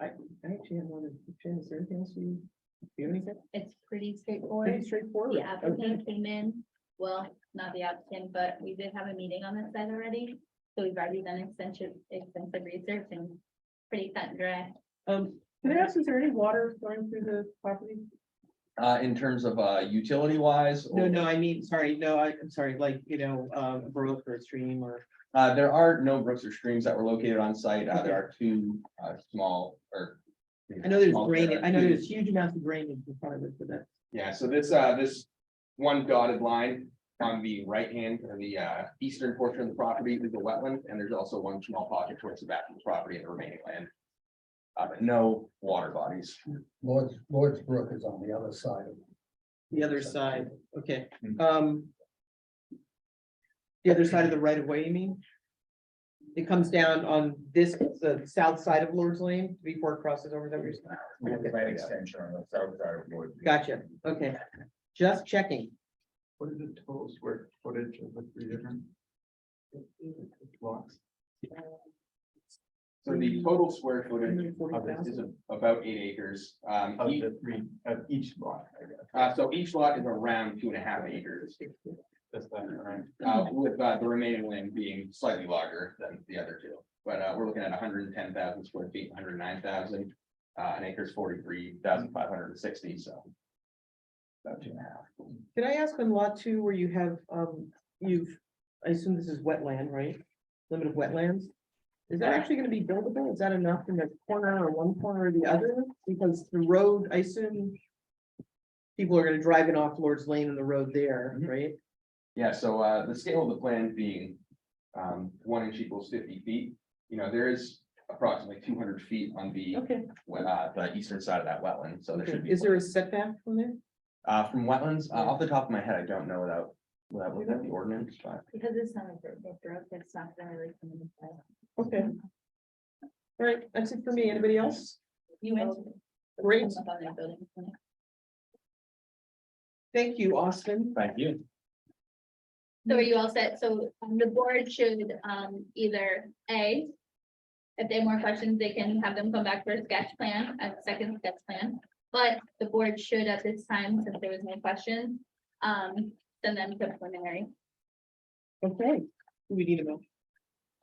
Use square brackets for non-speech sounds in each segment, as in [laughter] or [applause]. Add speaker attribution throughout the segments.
Speaker 1: I, I actually have one, Jen, is there anything else you, do you have anything?
Speaker 2: It's pretty
Speaker 1: Pretty
Speaker 2: straightforward.
Speaker 1: straightforward.
Speaker 2: The
Speaker 1: Okay.
Speaker 2: applicant came in, well, not the applicant, but we did have a meeting on this side already. So we've already done extensive, extensive research and pretty cut and dry.
Speaker 1: Um, can I ask, is there any water going through the property?
Speaker 3: Uh, in terms of, uh, utility wise.
Speaker 1: No, no, I mean, sorry, no, I, I'm sorry, like, you know, um, brook or stream or,
Speaker 3: Uh, there are no brooks or streams that were located on site. Uh, there are two, uh, small or.
Speaker 1: I know there's
Speaker 3: small-
Speaker 1: drainage, I know
Speaker 3: two-
Speaker 1: there's huge amounts of drainage in front of it, but that,
Speaker 3: Yeah, so this, uh, this one dotted line on the right hand or the, uh, eastern portion of the property is the wetland, and there's also one small pocket towards the back of the property and the remaining land. Uh, but no water bodies.
Speaker 4: Lord's, Lord's Brook is on the other side of.
Speaker 1: the other side, okay,
Speaker 5: Mm.
Speaker 3: Hmm.
Speaker 1: um. The other side of the right of way, you mean? It comes down on this, the south side of Lord's Lane before it crosses over, is that what you're saying? Okay.
Speaker 5: Right extension on the south side of Wood.
Speaker 1: Gotcha, okay, just checking.
Speaker 5: What is the total square footage of the three different? Blocks.
Speaker 3: So
Speaker 1: Hmm.
Speaker 3: the total square footage of this
Speaker 1: 140,000.
Speaker 3: is about eight acres. Um,
Speaker 5: Of
Speaker 3: each-
Speaker 5: the three, of each block, I guess.
Speaker 3: uh, so each lot is around two and a half acres,
Speaker 5: That's that, right?
Speaker 3: uh, with, uh, the remaining land being slightly larger than the other two. But, uh, we're looking at hundred and ten thousand square feet, hundred and nine thousand, uh, an acre is forty-three thousand five hundred and sixty, so. About two and a half.
Speaker 1: Can I ask on lot two where you have, um, you've, I assume this is wetland, right? Limit of wetlands? Is that actually gonna be buildable? Is that enough in the corner or one corner or the other? Because the road, I assume. People are gonna drive it off Lord's Lane and the road there,
Speaker 3: Mhm.
Speaker 1: right?
Speaker 3: Yeah, so uh, the scale of the plan being um, one inch equals fifty feet, you know, there is approximately two hundred feet on the
Speaker 1: Okay,
Speaker 3: uh, the eastern side of that wetland, so there should be.
Speaker 1: is there a setback from there?
Speaker 3: Uh, from wetlands, uh, off the top of my head, I don't know without, without looking at the ordinance, but
Speaker 2: Because it's not a big brook, it's not gonna really come in.
Speaker 3: Mm-hmm.
Speaker 1: Okay. All right, that's it for me. Anybody else?
Speaker 2: You answered.
Speaker 1: Great,
Speaker 2: Up on that building.
Speaker 1: thank you, Austin.
Speaker 3: thank you.
Speaker 2: So are you all set? So um, the board should um either A. If they have more questions, they can have them come back for a sketch plan, a second sketch plan. But the board should at this time, since there was no question, um send them to preliminary.
Speaker 1: Okay, we need a vote.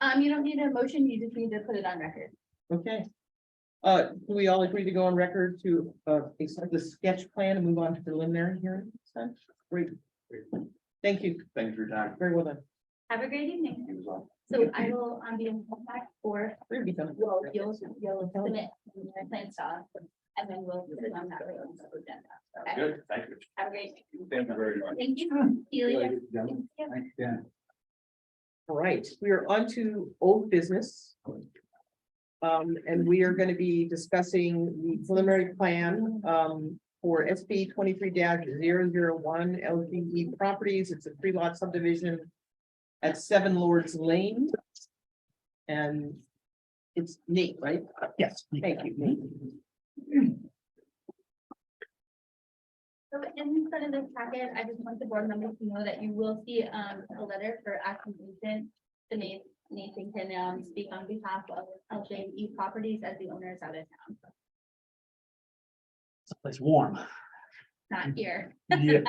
Speaker 2: Um, you don't need a motion, you just need to put it on record.
Speaker 1: Okay. Uh, do we all agree to go on record to, uh, accept the sketch plan and move on to preliminary hearing? Sounds Great. Thank you.
Speaker 3: Thanks for your time.
Speaker 1: Very well done.
Speaker 2: Have a great evening. So I will um be in contact for,
Speaker 1: We're gonna be done.
Speaker 2: well, you'll you'll submit your plan stuff. And then we'll put it on that regular agenda. Okay.
Speaker 3: Good, thank you.
Speaker 2: Have a great, evening.
Speaker 3: Thank you very much.
Speaker 2: thank you. Celia.
Speaker 5: Gentlemen, thank you, Dan.
Speaker 1: All right, we are on to old business. Um, and we are gonna be discussing the preliminary plan, um, for SB twenty-three one LGE E properties. It's a three lot subdivision at Seven Lords Lane. And it's Nate, right? Yes. Thank you, Nate.
Speaker 2: So in front of the packet, I just want the board members to know that you will see um a letter for action agent. The name Nathan can um speak on behalf of LJE Properties as the owners out of town,
Speaker 1: [laughs]
Speaker 6: Someplace warm.
Speaker 2: not here. [laughs]
Speaker 6: Yeah.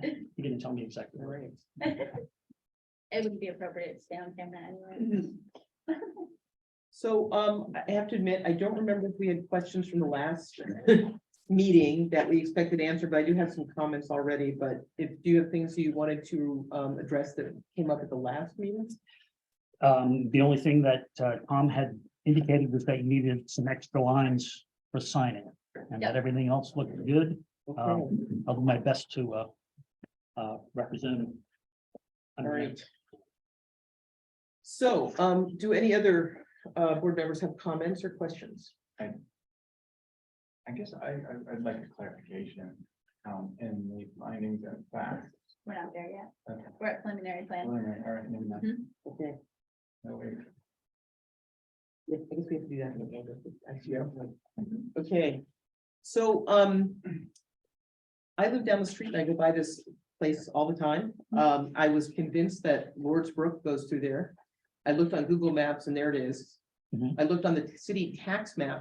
Speaker 2: It
Speaker 6: You didn't tell me exactly where.
Speaker 1: Right.
Speaker 2: wouldn't be appropriate to stay on camera anyway.
Speaker 1: So um, I have to admit, I don't remember if we had questions from the last meeting that we expected answered, but I do have some comments already, but if, do you have things you wanted to um, address that came up at the last meeting?
Speaker 6: Um, the only thing that uh, Tom had indicated was that you needed some extra lines for signing. And that
Speaker 2: Yeah.
Speaker 6: everything else looked good.
Speaker 1: Okay,
Speaker 6: Um, I'll do my best to uh. Uh, represent. him.
Speaker 1: all right. So um, do any other uh, board members have comments or questions?
Speaker 5: I guess I, I, I'd like a clarification, um, in the findings and facts.
Speaker 2: We're not there yet.
Speaker 5: Okay.
Speaker 2: We're at preliminary
Speaker 5: All
Speaker 2: plan.
Speaker 5: right, all right, maybe not.
Speaker 1: Okay,
Speaker 5: No, wait.
Speaker 1: yeah, I guess we have to do that in the end. Actually, I don't know. Okay, so, um. I live down the street and I go by this place all the time. Um, I was convinced that Lord's Brook goes through there. I looked on Google Maps and there it is.
Speaker 6: Mhm.
Speaker 1: I looked on the city tax map